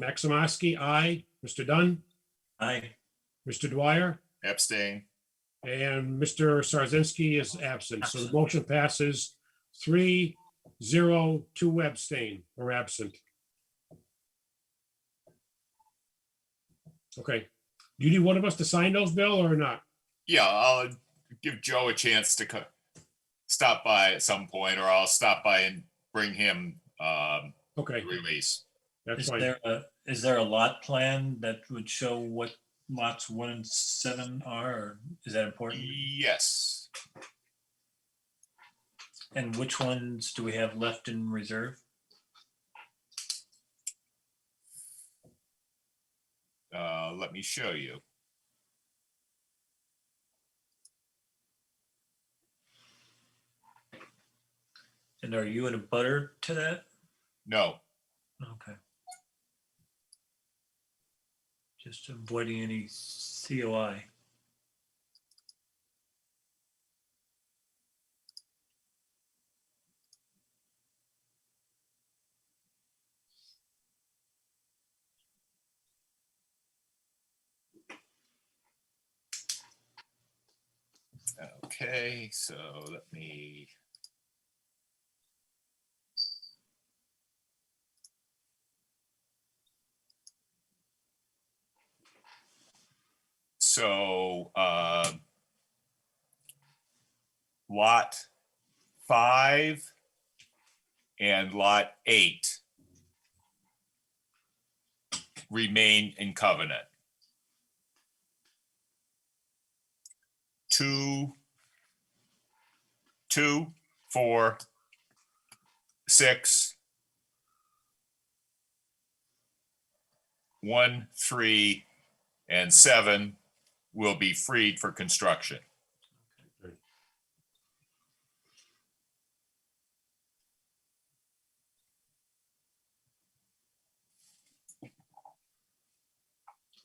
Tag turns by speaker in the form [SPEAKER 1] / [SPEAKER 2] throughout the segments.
[SPEAKER 1] Maximowski, aye. Mr. Dunn,
[SPEAKER 2] Aye.
[SPEAKER 1] Mr. Dwyer,
[SPEAKER 3] abstain,
[SPEAKER 1] and Mr. Sarzinski is absent. So the motion passes three, zero, two abstain or absent. Okay. Do you need one of us to sign those, Bill, or not?
[SPEAKER 3] yeah, I'll give Joe a chance to co- stop by at some point, or I'll stop by and bring him um,
[SPEAKER 1] Okay,
[SPEAKER 3] the release.
[SPEAKER 1] that's
[SPEAKER 2] Is
[SPEAKER 1] fine.
[SPEAKER 2] there a, is there a lot plan that would show what lots one and seven are? or Is that important?
[SPEAKER 3] Yes,
[SPEAKER 2] And which ones do we have left in reserve?
[SPEAKER 3] uh, let me show you.
[SPEAKER 2] And are you in a butter to that?
[SPEAKER 3] No,
[SPEAKER 2] Okay. Just avoiding any COI.
[SPEAKER 3] okay, so let me. So, uh, lot five and lot eight remain in covenant. Two, two, four, six, one, three, and seven will be freed for construction.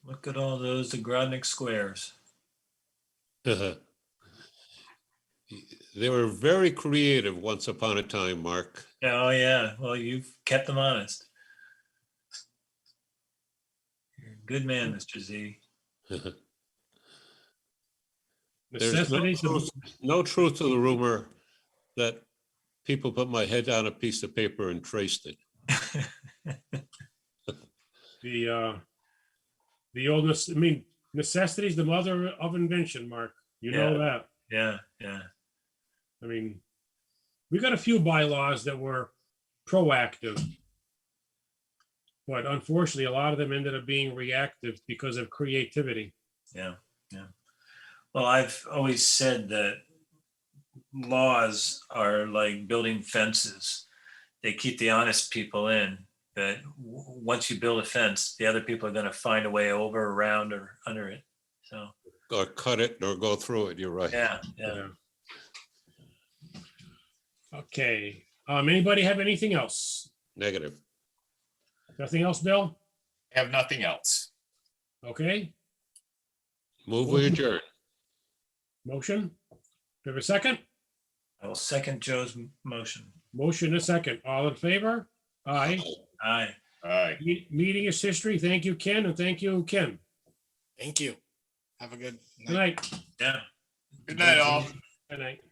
[SPEAKER 2] Look at all those Agrodnik squares.
[SPEAKER 4] They Uh-huh. were very creative once upon a time, Mark.
[SPEAKER 2] Oh, yeah. Well, you've kept them honest. You're a good man, Mr. Z.
[SPEAKER 4] There's no
[SPEAKER 1] Necessities of
[SPEAKER 4] truth- no truth to the rumor that people put my head on a piece of paper and traced it.
[SPEAKER 1] the, uh, the oldest, I mean, necessity is the mother of invention, Mark. You know
[SPEAKER 2] Yeah.
[SPEAKER 1] that.
[SPEAKER 2] Yeah, yeah.
[SPEAKER 1] I mean, we got a few bylaws that were proactive. But unfortunately, a lot of them ended up being reactive because of creativity.
[SPEAKER 2] Yeah, yeah. Well, I've always said that laws are like building fences. They keep the honest people in, but w- once you build a fence, the other people are going to find a way over, around, or under it. So,
[SPEAKER 4] Or cut it or go through it, you're right.
[SPEAKER 2] yeah, yeah.
[SPEAKER 1] Okay, um, anybody have anything else?
[SPEAKER 4] Negative.
[SPEAKER 1] Nothing else, Bill?
[SPEAKER 3] Have nothing else.
[SPEAKER 1] Okay,
[SPEAKER 4] Move we adjourn.
[SPEAKER 1] motion? Do we have a second?
[SPEAKER 2] I will second Joe's m- motion.
[SPEAKER 1] Motion a second. All in favor? Aye.
[SPEAKER 2] Aye.
[SPEAKER 3] All right,
[SPEAKER 1] Me- Meeting is history. Thank you, Ken, and thank you, Kim.
[SPEAKER 5] Thank you. Have a good night.
[SPEAKER 1] Good night.
[SPEAKER 2] Yeah.
[SPEAKER 3] good night all.
[SPEAKER 1] Good night.